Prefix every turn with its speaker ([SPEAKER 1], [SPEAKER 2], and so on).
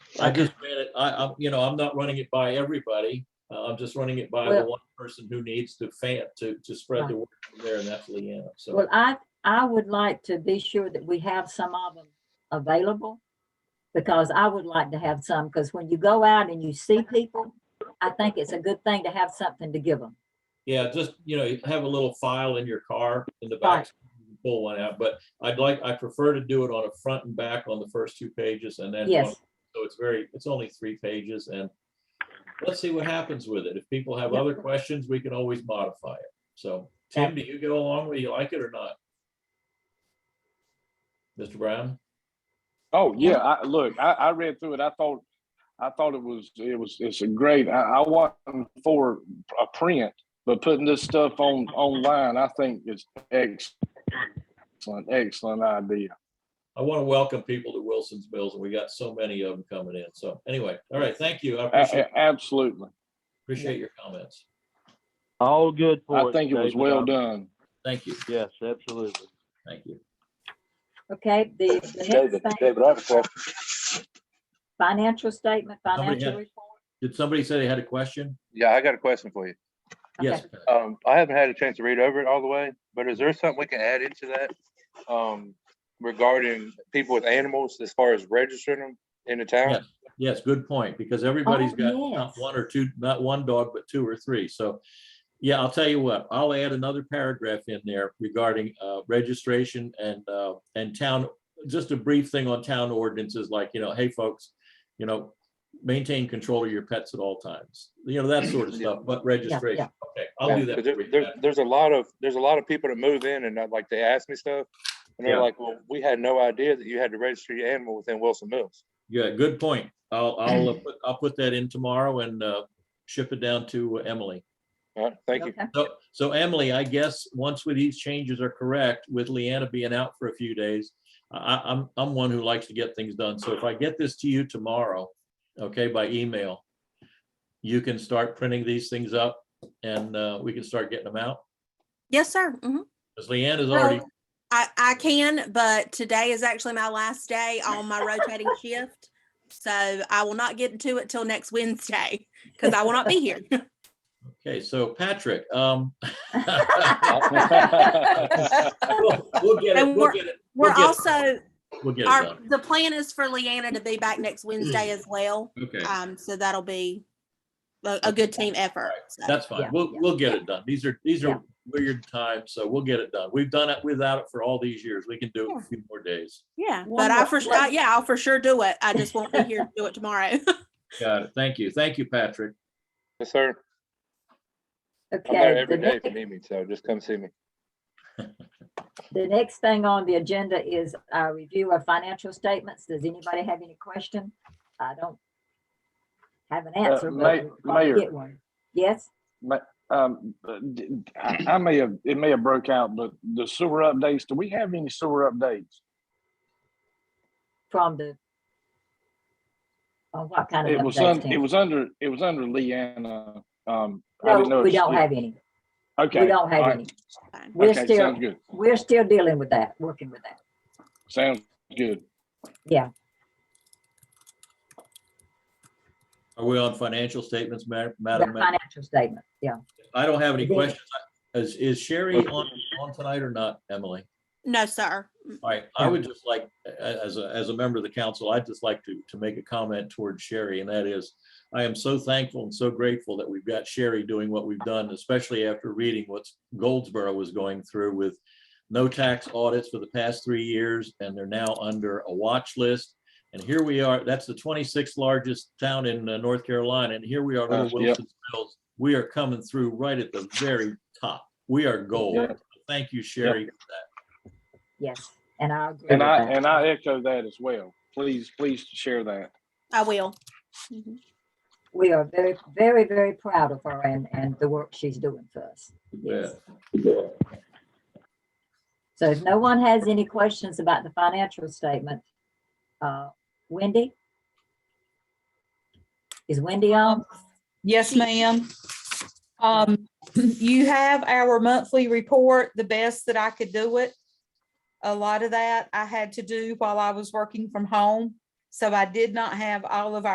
[SPEAKER 1] I just ran it, I, I'm, you know, I'm not running it by everybody. Uh, I'm just running it by the
[SPEAKER 2] Well-
[SPEAKER 1] one person who needs to fan, to, to spread the word from there and that's Leanna. So,
[SPEAKER 2] Well, I, I would like to be sure that we have some of them available. Because I would like to have some, because when you go out and you see people, I think it's a good thing to have something to give them.
[SPEAKER 1] yeah, just, you know, have a little file in your car in the
[SPEAKER 2] Right.
[SPEAKER 1] back. you can Pull one out, but I'd like, I prefer to do it on a front and back on the first two pages and then. one-
[SPEAKER 2] Yes,
[SPEAKER 1] So it's very, it's only three pages and let's see what happens with it. If people have
[SPEAKER 2] Yeah.
[SPEAKER 1] other questions, we can always modify it. So, Tim, do you go along with, it? you like it or not? Mr. Brown?
[SPEAKER 3] Oh
[SPEAKER 2] Yeah.
[SPEAKER 3] yeah, I, look, I, I read through it. I thought, I thought it was, it was, it's a great. I, I wasn't for a print, but putting this stuff on online, I think it's excellent, excellent idea.
[SPEAKER 1] I want to welcome people to Wilson's Mills, and we got so many of them coming in. So anyway, all right, thank
[SPEAKER 2] Uh,
[SPEAKER 1] you. I
[SPEAKER 3] A-
[SPEAKER 1] appreciate,
[SPEAKER 3] a- absolutely,
[SPEAKER 1] appreciate your comments.
[SPEAKER 4] All good for it.
[SPEAKER 3] I think it was
[SPEAKER 4] David.
[SPEAKER 3] well done.
[SPEAKER 1] Thank you,
[SPEAKER 4] Yes, absolutely.
[SPEAKER 1] thank you.
[SPEAKER 2] okay, the, the
[SPEAKER 5] David,
[SPEAKER 2] next thing,
[SPEAKER 5] David, I have a question.
[SPEAKER 2] financial statement,
[SPEAKER 1] Somebody
[SPEAKER 2] financial
[SPEAKER 1] had-
[SPEAKER 2] report.
[SPEAKER 1] Did somebody say they had a question?
[SPEAKER 5] Yeah, I got a question for you.
[SPEAKER 1] Yes.
[SPEAKER 2] Okay.
[SPEAKER 5] Um, I haven't had a chance to read over it all the way, but is there something we can add into that? Um, regarding people with animals as far as registering them in the town?
[SPEAKER 1] Yes, good point, because everybody's got not
[SPEAKER 2] yes.
[SPEAKER 1] one or two, not one dog, but two or three. So, yeah, I'll tell you what, I'll add another paragraph in there regarding uh, registration and, uh, and town, just a brief thing on town ordinances, like, you know, hey, folks, you know, maintain control of your pets at all times, you know, that sort of stuff, but registration. Okay, I'll do that.
[SPEAKER 5] Because there-
[SPEAKER 1] for you,
[SPEAKER 5] there-
[SPEAKER 1] Pat.
[SPEAKER 5] there's a lot of, there's a lot of people that move in and I'd like, they ask me stuff. And they're
[SPEAKER 1] Yeah.
[SPEAKER 5] like, well, we had no idea that you had to register your animal within Wilson Mills.
[SPEAKER 1] Yeah, good point. I'll, I'll, uh, put- I'll put that in tomorrow and uh, ship it down to uh, Emily.
[SPEAKER 5] All right, thank you.
[SPEAKER 2] Okay.
[SPEAKER 1] So, so Emily, I guess once with these changes are correct, with Leanna being out for a few days, I, I- I'm, I'm one who likes to get things done. So if I get this to you tomorrow, okay, by email, you can start printing these things up and uh, we can start getting them out.
[SPEAKER 6] Yes, sir. Mhm.
[SPEAKER 1] Because Leanna's
[SPEAKER 6] Well,
[SPEAKER 1] already,
[SPEAKER 6] I, I can, but today is actually my last day on my rotating shift. So I will not get to it till next Wednesday because I will not be here.
[SPEAKER 1] okay, so Patrick, um. We'll we'll get it,
[SPEAKER 6] And
[SPEAKER 1] we'll
[SPEAKER 6] we're-
[SPEAKER 1] get it,
[SPEAKER 6] We're
[SPEAKER 1] We'll get-
[SPEAKER 6] also,
[SPEAKER 1] we'll get it
[SPEAKER 6] our,
[SPEAKER 1] done. Mm.
[SPEAKER 6] the plan is for Leanna to be back next Wednesday as well.
[SPEAKER 1] Okay.
[SPEAKER 6] Um, so that'll be a, a good team effort. so.
[SPEAKER 1] That's
[SPEAKER 2] Yeah,
[SPEAKER 1] fine. We'll,
[SPEAKER 2] yeah.
[SPEAKER 1] we'll get it done. These are, these
[SPEAKER 2] Yeah.
[SPEAKER 1] are weird times, so we'll get it done. We've done it without it for all these years. We can do it in a few more days.
[SPEAKER 6] Yeah, but I for,
[SPEAKER 2] Wonderful.
[SPEAKER 6] I- yeah, I'll for sure do it. I just won't be here to do it tomorrow.
[SPEAKER 1] Got it. Thank you. Thank you, Patrick.
[SPEAKER 5] Yes, sir. I'm there
[SPEAKER 2] Okay, the
[SPEAKER 5] every day if
[SPEAKER 2] next,
[SPEAKER 5] you need me, so just come see me.
[SPEAKER 2] the next thing on the agenda is our review of financial statements. Does anybody have any question? I don't have an answer,
[SPEAKER 3] Ma-
[SPEAKER 2] but we'll probably
[SPEAKER 3] Uh, Mayor.
[SPEAKER 2] get one. Yes,
[SPEAKER 3] Um, but d- I, I may have, it may have broke out, but the sewer updates, do we have any sewer updates?
[SPEAKER 2] from the, on what kind of
[SPEAKER 3] It was,
[SPEAKER 2] updates,
[SPEAKER 3] un-
[SPEAKER 2] Tim?
[SPEAKER 3] it was under, it was under Leanna. Um, I didn't
[SPEAKER 2] No, we
[SPEAKER 3] notice
[SPEAKER 2] don't
[SPEAKER 3] it-
[SPEAKER 2] have any.
[SPEAKER 3] Okay.
[SPEAKER 2] We don't
[SPEAKER 3] all
[SPEAKER 2] have
[SPEAKER 3] right.
[SPEAKER 2] any.
[SPEAKER 6] Fine.
[SPEAKER 2] We're
[SPEAKER 3] Okay,
[SPEAKER 2] still,
[SPEAKER 3] sounds good.
[SPEAKER 2] we're still dealing with that, working with that.
[SPEAKER 3] Sounds good.
[SPEAKER 1] Are we on financial statements, Ma-
[SPEAKER 2] The
[SPEAKER 1] Madam? Ma-
[SPEAKER 2] financial statement, yeah.
[SPEAKER 1] I don't have any
[SPEAKER 2] Yeah.
[SPEAKER 1] questions. Is, is Sherry on, on tonight or not, Emily?
[SPEAKER 6] No, sir.
[SPEAKER 1] All right, I would just like, a- as a, as a member of the council, I'd just like to, to make a comment towards Sherry, and that is, I am so thankful and so grateful that we've got Sherry doing what we've done, especially after reading what Goldsboro was going through with no tax audits for the past three years, and they're now under a watch list. And here we are, that's the twenty-sixth largest town in uh, North Carolina, and here we are,
[SPEAKER 3] Uh,
[SPEAKER 1] Little
[SPEAKER 3] yep.
[SPEAKER 1] Wilson's Mills. We are coming through right at the very top. We are gold.
[SPEAKER 3] Yeah.
[SPEAKER 1] Thank you, Sherry, for that.
[SPEAKER 2] Yes, and I agree with
[SPEAKER 3] And I,
[SPEAKER 2] that.
[SPEAKER 3] and I echo that as well. Please, please share that.
[SPEAKER 6] I will.
[SPEAKER 1] Mm-hmm.
[SPEAKER 6] Mhm.
[SPEAKER 2] We are very, very, very proud of her and, and the work she's doing for us. Yes. So if no one has any questions about the financial statement, uh, Wendy? Is Wendy on?
[SPEAKER 7] Yes, ma'am. Um, you have our monthly report, the best that I could do it. A lot of that I had to do while I was working from home, so I did not have all of our.